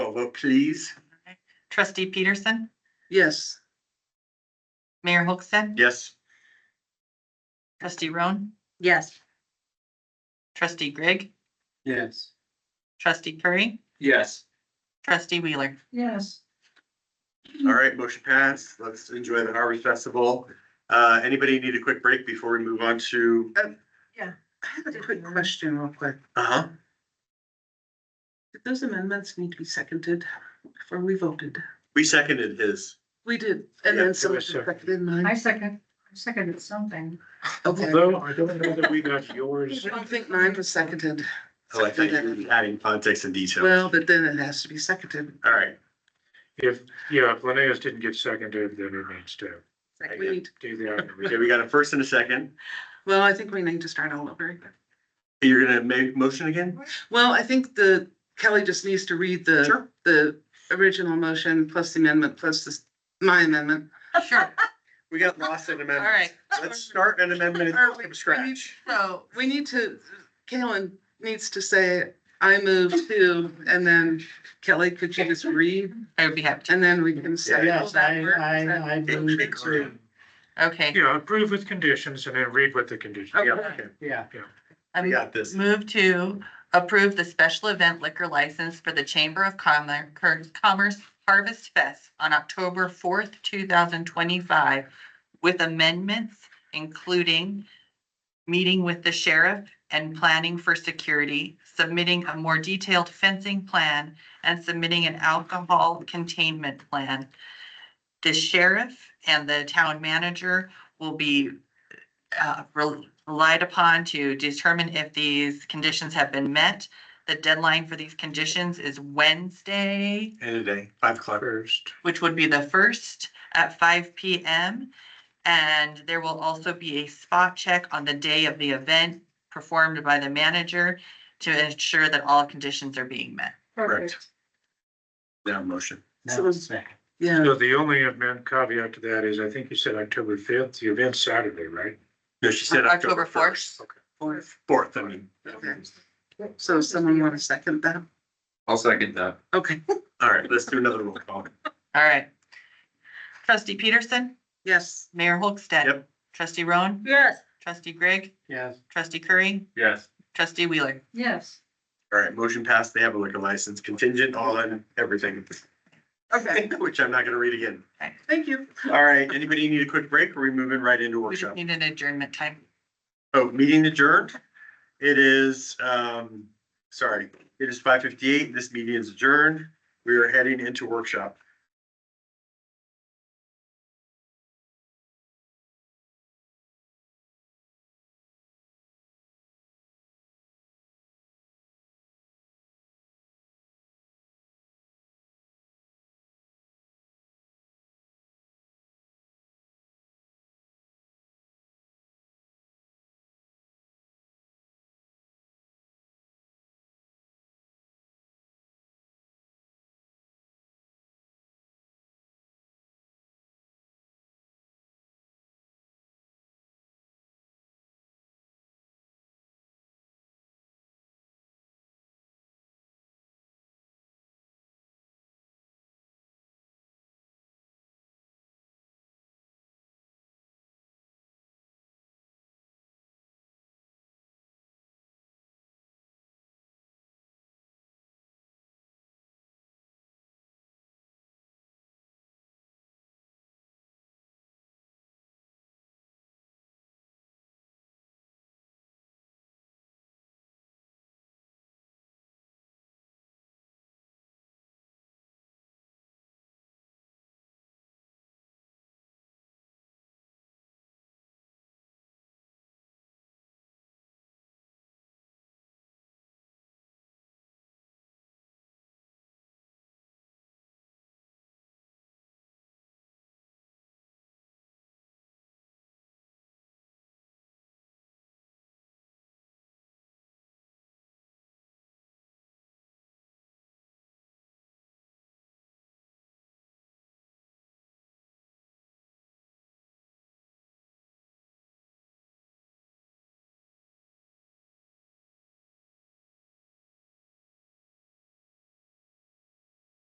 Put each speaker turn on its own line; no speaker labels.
Call vote, please.
Trustee Peterson,
Yes.
Mayor Hochstead,
Yes.
trustee Roan,
Yes.
trustee Greg,
Yes.
trustee Curry,
Yes.
trustee Wheeler.
Yes.
All right, motion passed. Let's enjoy the Harvest Festival. Uh, anybody need a quick break before we move on to?
I have a quick question real quick.
Uh-huh.
Did those amendments need to be seconded before we voted?
We seconded his.
We did, and
Yeah,
then someone
was seconded.
seconded mine.
second, I seconded something.
Okay.
Although I don't know that we got yours.
I don't think mine was seconded.
Oh, I thought you were adding context and details.
Well, but then it has to be seconded.
All right,
If, yeah, if Linnaeus didn't get seconded, then it needs to
I
We
did.
need,
do that.
okay, we got a first and a second.
well, I think we need to start all over.
You're gonna make motion again?
Well, I think the, Kelly just needs to read the, the original motion plus the amendment plus this, my amendment.
Sure,
We got lost in
all
amendments.
right.
Let's start an amendment
Or we-
from scratch.
So,
We need to, Kalen needs to say, I move to, and then Kelly, could you just read?
I would be happy
And then we can say. well,
Yes,
that
I,
works, that-
I, I move to,
to. Okay,
Yeah, approve with conditions and then read what the condition.
Okay.
yeah,
I
We got this.
move to approve the special event liquor license for the Chamber of Commer- Cur- Commerce Harvest Fest on October fourth, two thousand twenty-five with amendments including meeting with the sheriff and planning for security, submitting a more detailed fencing plan, and submitting an alcohol containment plan. The sheriff and the town manager will be uh, rel- relied upon to determine if these conditions have been met. The deadline for these conditions is Wednesday,
End of day, five o'clock.
First,
which would be the first at five P M. And there will also be a spot check on the day of the event performed by the manager to ensure that all conditions are being met.
Correct. Now motion.
So
no,
it's-
second,
Yeah,
so the only amend caveat to that is, I think you said October fifth, the event's Saturday, right?
No, she said October
October
first.
fourth.
fourth.
Fourth, I mean.
Okay. So someone want to second that?
I'll second that.
Okay,
All right, let's do another roll call.
All right. Trustee Peterson,
yes.
Mayor Holstead.
Yep.
Trustee Roan,
Yes.
trustee Greg,
yes,
trustee Curry,
Yes.
trustee Wheeler.
Yes.
All right, motion passed. They have a liquor license contingent on everything,
Okay,
which I'm not gonna read again.
thank you.
All right, anybody need a quick break? Are we moving right into
We just
workshop?
need an adjournment time.
Oh, meeting adjourned. It is, um, sorry, it is five fifty-eight. This meeting is adjourned. We are heading into workshop.